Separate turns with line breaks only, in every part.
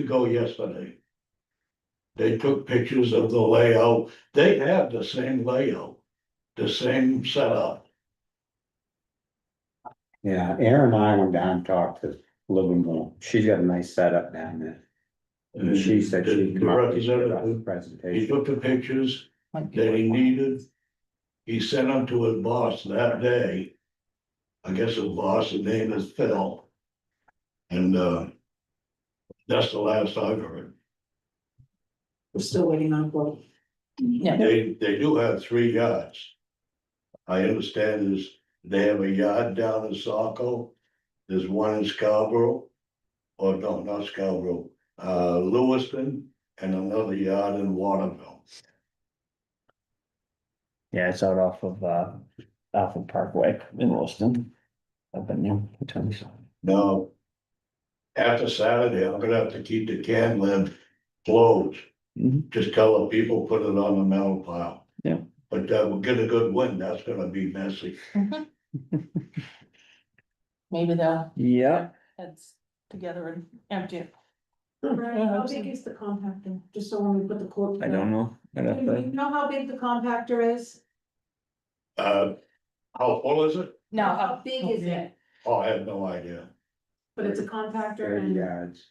ago yesterday. They took pictures of the layout. They have the same layout, the same setup.
Yeah, Erin and I went down and talked to Livermore. She's got a nice setup down there. And she said
The-
she'd
Mm-hmm. The
come up with
representative,
a
he
presentation.
took the pictures that he needed. He sent them to his boss that day. I guess his boss's name is Phil. And, uh, that's the last I've heard.
We're still waiting on board.
Yeah,
They, they do have three yards. I understand is they have a yard down in Saco, there's one in Scarborough. Or no, not Scarborough, uh, Lewiston and another yard in Waterville.
yeah, it's out off of uh, off of Parkway in Wilson. I've been there for twenty something.
Now. After Saturday, I'm gonna have to keep the can lid closed.
Mhm.
Just tell the people, put it on the metal pile.
Yeah.
But that will get a good wind, that's gonna be messy.
Maybe they'll
Yeah,
heads together and empty it.
Right, how big is the compactor, just so when we put the quote.
I don't know. I'd
Do
have
you
to-
know how big the compactor is?
Uh, how full is it?
No,
How
how-
big is it?
Oh, I have no idea.
But it's a compactor
Thirty
and
yards,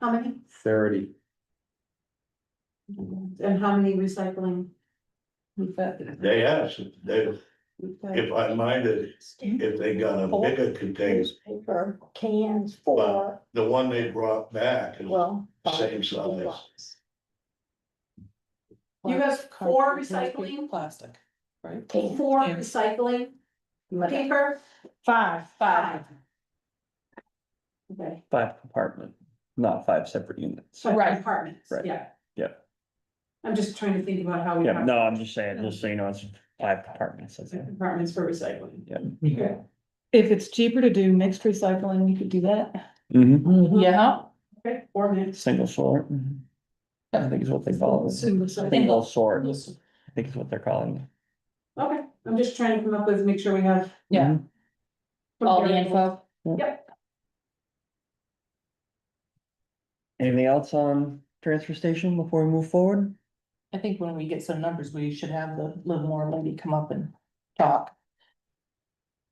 how many?
thirty.
And how many recycling?
we've got-
They asked, if they,
we've got
if I minded, if they got a bigger container,
newspaper cans for,
the one they brought back is the
well.
same size.
bottles.
You have four
cartridges,
recycling?
Plastic, right?
Cans.
Four
Yeah.
recycling paper?
Five,
Five,
Okay,
Five compartment, not five separate units.
so
Right.
compartments,
Right.
yeah.
Yeah.
I'm just trying to think about how we.
Yeah,
have
no, I'm just saying, just so you know, it's five compartments. that's it.
Compartments for recycling.
Yeah.
Okay.
If it's cheaper to do mixed recycling, you could do that.
Mhm.
yeah,
Okay, four minutes.
Single sort. mhm. I think is what they call it.
Single sort.
Single sort, I think is what they're calling it.
Okay, I'm just trying to come up with, make sure we have.
Mm-hmm.
yeah, all the info.
Anything else on transfer station before we move forward?
I think when we get some numbers, we should have the Livermore lady come up and talk.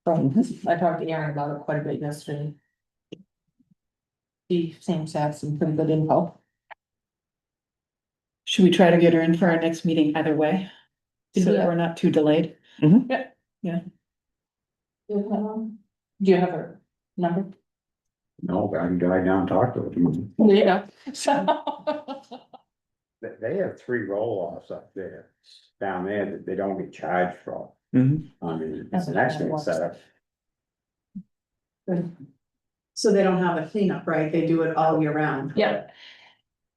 From, I talked to Aaron about it quite a bit yesterday. She seems to have some pretty good info.
Should we try to get her in for our next meeting either way? So that we're not too delayed.
Um,
Do you have her number?
No, but I can drive down and talk to
Mm-hmm.
them.
Yeah. So.
They, they have three roll-offs up there, down there that they don't get charged for.
Mhm.
I mean, it's an excellent setup.
So they don't have a cleanup, right? They do it all year round.
Yeah.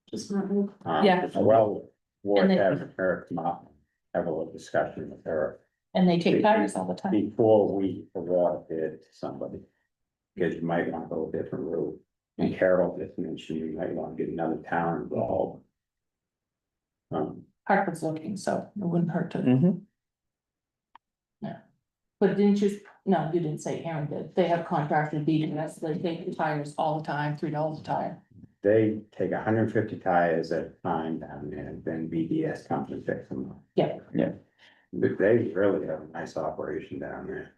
Just not real.
Uh,
Yeah.
it's Well, worth
And then-
having her come up, and have a little discussion with her
And they take tires all the time.
before we award it to somebody. Cause you might wanna go a different route, and Carol just mentioned you might wanna get another town involved. Um,
Hartford's looking, so it wouldn't hurt to,
Mhm.
but didn't you, no, you didn't say Aaron did. They have contracted beating us. They take the tires all the time, three dollars a tire.
they take hundred and fifty tires at a time down there, and then BDS comes and picks them up.
Yeah.
Yeah.
They, they really have a nice operation down there.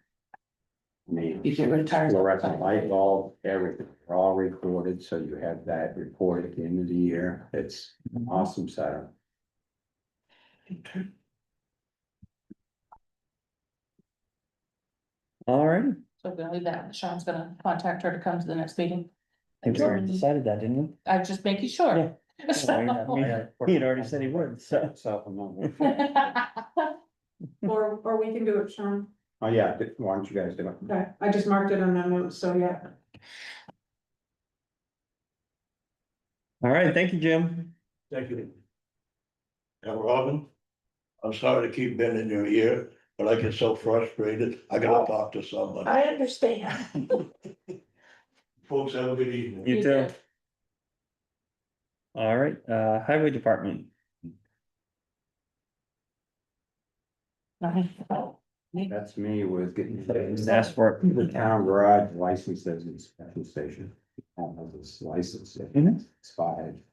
I mean.
You get rid of tires. all the
Fluorescent
time.
light bulb, everything, they're all recorded, so you have that report at the end of the year, it's an awesome setup.
All right, I
So we're gonna leave that. Sean's gonna contact her to come to the next meeting.
think we already decided that, didn't we?
I'm just making sure. So-
He had already said he would, so.
So, um,
Or, or we can do it, Sean.
Oh, yeah, why don't you guys do it?
Okay, I just marked it on that note, so yeah.
All right, thank you, Jim.
Thank you. Now, Robin, I'm sorry to keep bending your ear, but I get so frustrated, I gotta talk to somebody.
I understand.
Folks, have a good evening.
You too. All right, uh, highway department.
That's me with getting.
Ask for it.
The town garage licenses and special station. I don't know if it's licensed,
Mhm.
it's five.